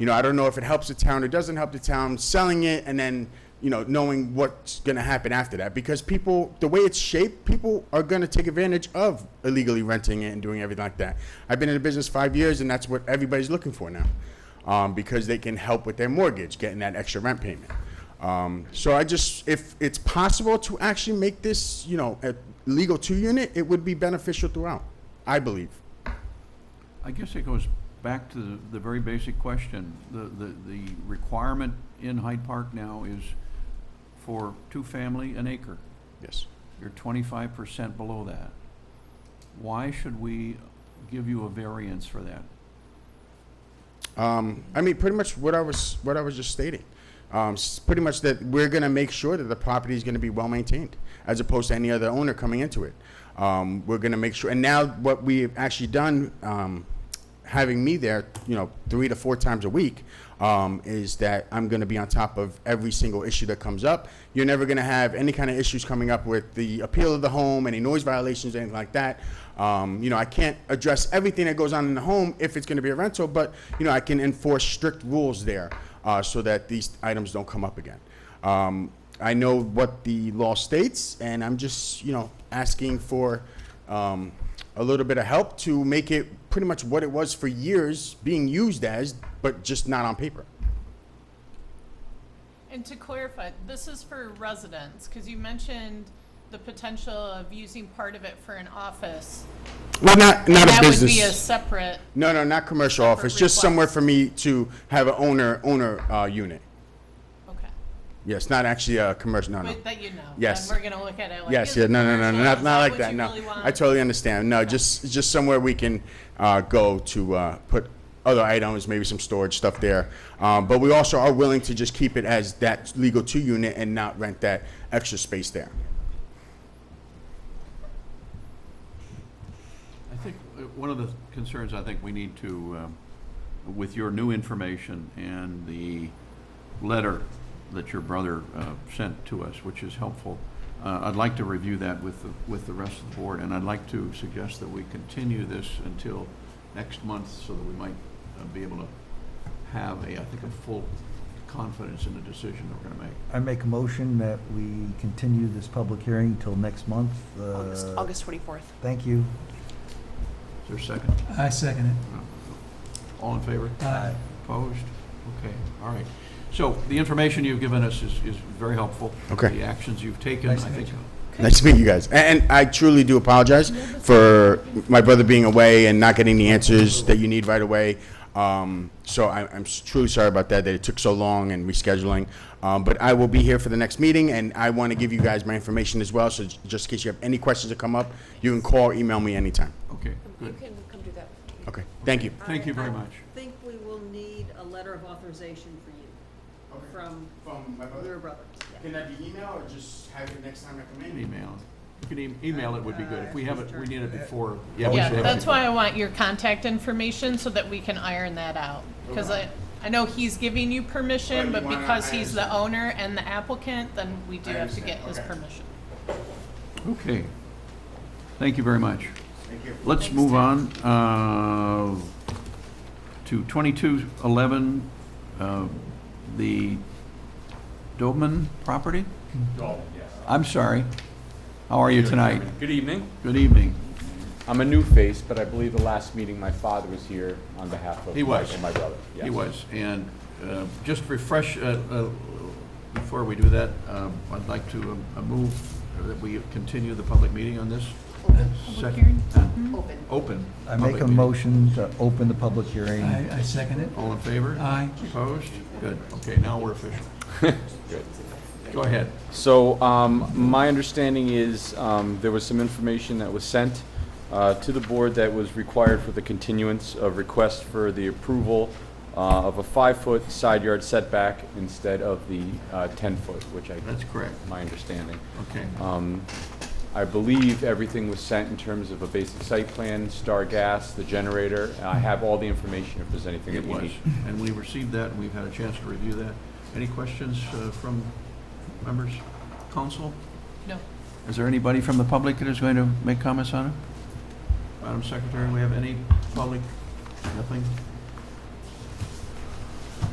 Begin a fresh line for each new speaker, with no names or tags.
You know, I don't know if it helps the town or doesn't help the town selling it and then, you know, knowing what's going to happen after that. Because people, the way it's shaped, people are going to take advantage of illegally renting it and doing everything like that. I've been in the business five years and that's what everybody's looking for now um, because they can help with their mortgage, getting that extra rent payment. Um, so I just, if it's possible to actually make this, you know, a legal two unit, it would be beneficial throughout, I believe.
I guess it goes back to the, the very basic question. The, the, the requirement in Hyde Park now is for two-family an acre.
Yes.
You're twenty-five percent below that. Why should we give you a variance for that?
Um, I mean, pretty much what I was, what I was just stating. Um, s- pretty much that we're gonna make sure that the property is gonna be well maintained, as opposed to any other owner coming into it. Um, we're gonna make sure, and now what we've actually done, um, having me there, you know, three to four times a week, um, is that I'm going to be on top of every single issue that comes up. You're never going to have any kind of issues coming up with the appeal of the home, any noise violations, anything like that. Um, you know, I can't address everything that goes on in the home if it's going to be a rental, but, you know, I can enforce strict rules there uh, so that these items don't come up again. Um, I know what the law states, and I'm just, you know, asking for um, a little bit of help to make it pretty much what it was for years being used as, but just not on paper.
And to clarify, this is for residents, because you mentioned the potential of using part of it for an office.
Well, not not a
That would be a
business.
separate,
No, no, not commercial
separate
office. Just somewhere
request.
for me to have an owner owner uh, unit.
okay,
Yes, not actually a commercial. No, no.
but that you know.
Yes.
And we're gonna look at it like.
Yes,
is
yeah,
it
no, no, no, no,
commercial?
not,
Is
not like
what
that,
you
no.
really
I
want?
totally understand, no, just, just somewhere we can, uh, go to, uh, put other items, maybe some storage stuff there. Um, but we also are willing to just keep it as that legal two unit and not rent that extra space there.
I think uh, one of the concerns I think we need to, um, with your new information and the letter that your brother uh, sent to us, which is helpful, uh, I'd like to review that with, the- with the rest of the board, and I'd like to suggest that we continue this until next month so that we might uh, be able to have a, I think, a full confidence in the decision that we're going to make.
I make a motion that we continue this public hearing till next month. uh,
August, August 24th.
Thank you.
Is there a second?
I second it.
All in favor?
Aye.
Opposed? Okay, all right. So the information you've given us is, is very helpful.
Okay.
The actions you've taken, I
Nice to meet
think.
Nice to meet you guys, A- and, and I truly do apologize for my brother being away and not getting the answers that you need right away. Um, so I, I'm s- truly sorry about that, that it took so long and rescheduling. Um, but I will be here for the next meeting, and I want to give you guys my information as well, so j- just in case you have any questions that come up, you can call, email me anytime.
Okay,
You
good.
can come do that.
Okay, thank you.
Thank you very
I-
much.
I think we will need a letter of authorization for you, from
From my
your brother. Yeah.
Can that be email, or just have it next time I
An email. You can e- email it would be good. If we have it, we need it before. we should
Yeah,
have it
that's
before.
why I want your contact information, so that we can iron that out. Because I, I know he's giving you
But
permission, but
you wanna-
because
I
he's the
understand.
owner and the applicant, then we do
I
have to
understand,
get his
okay.
permission.
Okay. Thank you very much.
Thank you.
Let's move on uh, to 2211, uh, the Dobman property? I'm sorry. How are you tonight?
Good evening.
Good evening.
I'm a new face, but I believe the last meeting my father was here on behalf of
He was.
Michael, my brother.
He
Yes.
was, and uh, just refresh, uh, uh, before we do that, um, I'd like to um, uh, move that we continue the public meeting on this. Sec-
hearing?
uh,
Open.
Open.
I
public
make a
meeting.
motion to open the public hearing.
I, I second it.
All in favor?
Aye.
Opposed? Good. Okay, now we're official.
Good.
Go ahead.
So, um, my understanding is, um, there was some information that was sent, uh, to the board that was required for the continuance of request for the approval, uh, of a five-foot side yard setback instead of the, uh, ten-foot, which I,
That's correct.
my understanding.
Okay.
Um, I believe everything was sent in terms of a basic site plan, star gas, the generator. I have all the information if there's anything that
It
you
was,
need.
and we received that, and we've had a chance to review that. Any questions uh, from members, council?
No,
Is there anybody from the public that is going to make comments on it? Madam Secretary, we have any public? Nothing?